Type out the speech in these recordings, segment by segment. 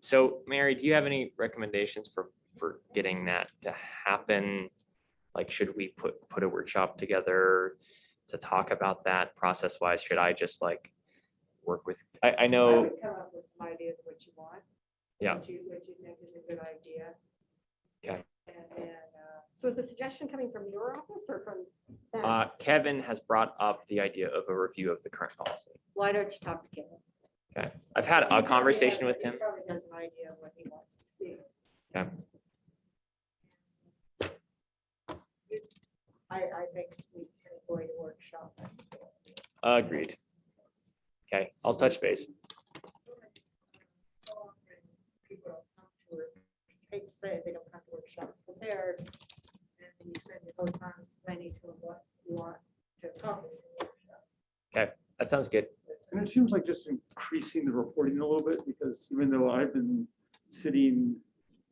So Mary, do you have any recommendations for, for getting that to happen? Like, should we put, put a workshop together to talk about that process wise? Should I just like work with, I, I I know, would come up with some ideas what you want. Yeah. What you, what you think is a good idea. Okay. And then, uh, So is the suggestion coming from your office or from them? uh, Kevin has brought up the idea of a review of the current policy. Why don't you talk to Kevin? I've had he a probably conversation has- with he him. Probably has an idea of what he wants to see. Okay. I, I think we can avoid a workshop. Agreed. Okay, I'll touch base. People don't come to work, hate to say it, they don't come to workshops prepared. And then you spend the whole time explaining to them what you want to accomplish. in the workshop. That sounds good. And it seems like just increasing the reporting a little bit, because even though I've been sitting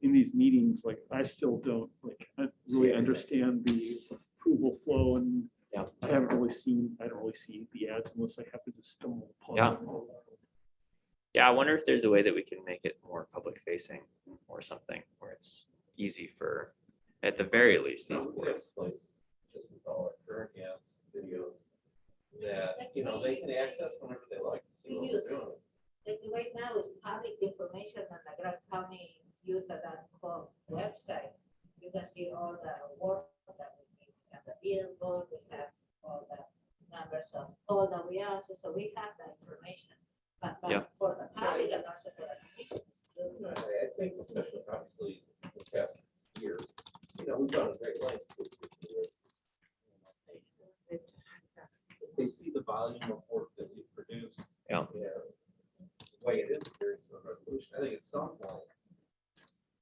in these meetings, like, I still don't, like, I really everything. understand the approval flow and Yeah. I haven't really seen, I don't really see the ads unless I happen to stumble upon. Yeah. them. Yeah, I wonder if there's a way that we can make it more public facing or something where it's easy for, at the very least, these Some boards. place, just with all our current apps, videos, that, you know, they can access whenever they like to see what we're doing. Like right now, it's public information on the Grand County Utah.com website. You can see all the work that we do, we have the billboard, we have all the numbers of all the we are, so- so we have the information. But but Yeah. for the public and also for the commission. No, I I think especially obviously the past year, you know, we've gone to great lengths. to- to- to- If They see the volume of work that we produce. Yeah. The way it is here is the resolution. I think at some point,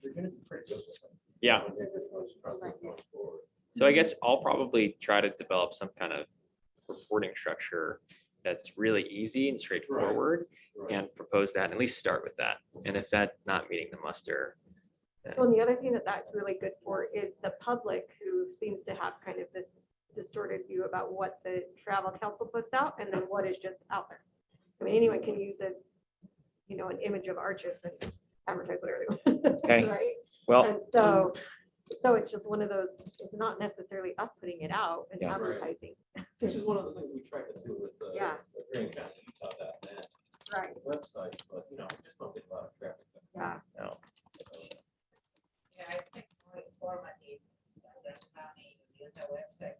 you're gonna be pretty good with it. Yeah. When this motion process goes forward. So I guess I'll probably try to develop some kind of reporting structure that's really easy and straightforward Right. and propose that, and at least start with that. And if that's not meeting the muster, then So and the other thing that that's really good for is the public who seems to have kind of this distorted view about what the travel council puts out and then what is just out there. I mean, anyone can use a, you know, an image of arches and advertise whatever they want. Okay. Right? well, And so, so it's just one of those, it's not necessarily us putting it out and Yeah. Right. advertising. Which is one of the things we tried to do with the. Yeah. the Grand County Utah dot net Right. website, but you know, we just don't get a lot of traffic. Yeah. no, Yeah, I think more informative, the Grand County Utah website.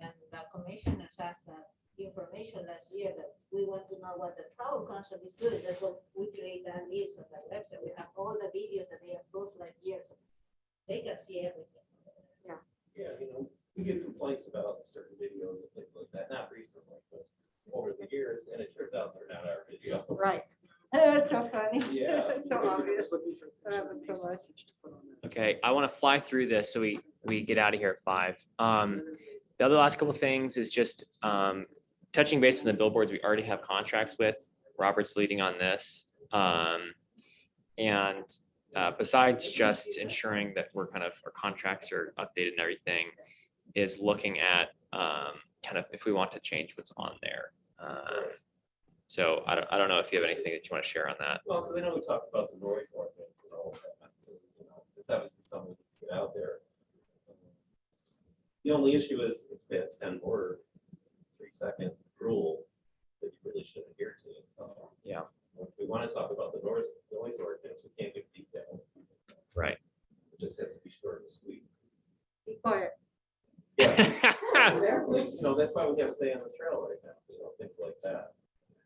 And the commissioners asked the information last year that we want to know what the travel council is doing. That's what we create that list on the website. We have all the videos that they approved like years. ago. They can see everything. Yeah, you know, we get complaints about certain videos and things like that, not recently, but over the years, and it turns out they're not our videos. Right. That's so funny. Yeah. So obvious. I haven't so much. okay, I want to fly through this so we, we get out of here at five. Um, the other last couple of things is just, um, touching base on the billboards we already have contracts with. Robert's leading on this. Um, and uh, besides just ensuring that we're kind of, our contracts are updated and everything, is looking at um, kind of if we want to change what's on there. Um, So I don't, I don't know if you have anything that you want to share on that. Well, because I know we talked about the noise ordinance and all of that, you know, it's obviously something to get out there. The only issue is, it's that ten word, three second rule that you really should adhere to, so. Yeah. If we want to talk about the noise, noise ordinance, we can't give details. Right. It just has to be short and sweet. Be quiet. Yeah, Exactly, you know, that's why we have stay on the trail right now, you know, things like that.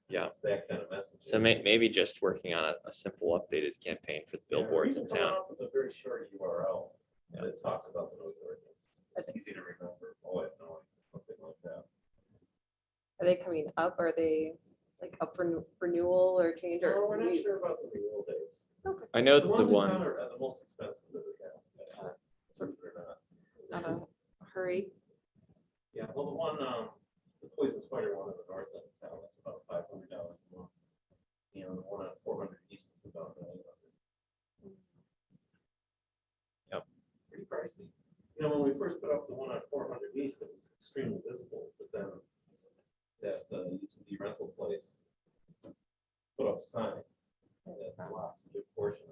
Yeah. It's That kind of message. So may, maybe just working on a, a simple updated campaign for the Yeah, or billboards you in can come town. up With a very short URL that talks about the noise ordinance. It's easy to remember, oh, it's noise, something like that. Are they coming up? Are they like up for n- renewal or change or? No, we're not we- sure about the renewal dates. I know The the ones in town one, are uh, the most expensive that we have. uh, believe it or Not Uh-huh. a hurry. Yeah, well, the one, um, the poison spider one in the north end of town, that's about five hundred dollars a month. You know, the one at four hundred east is about nine hundred. Yep. Pretty pricey. You know, when we first put up the one at four hundred east, it was extremely visible, but then that, uh, utility rental place put up a sign that blocks a good portion of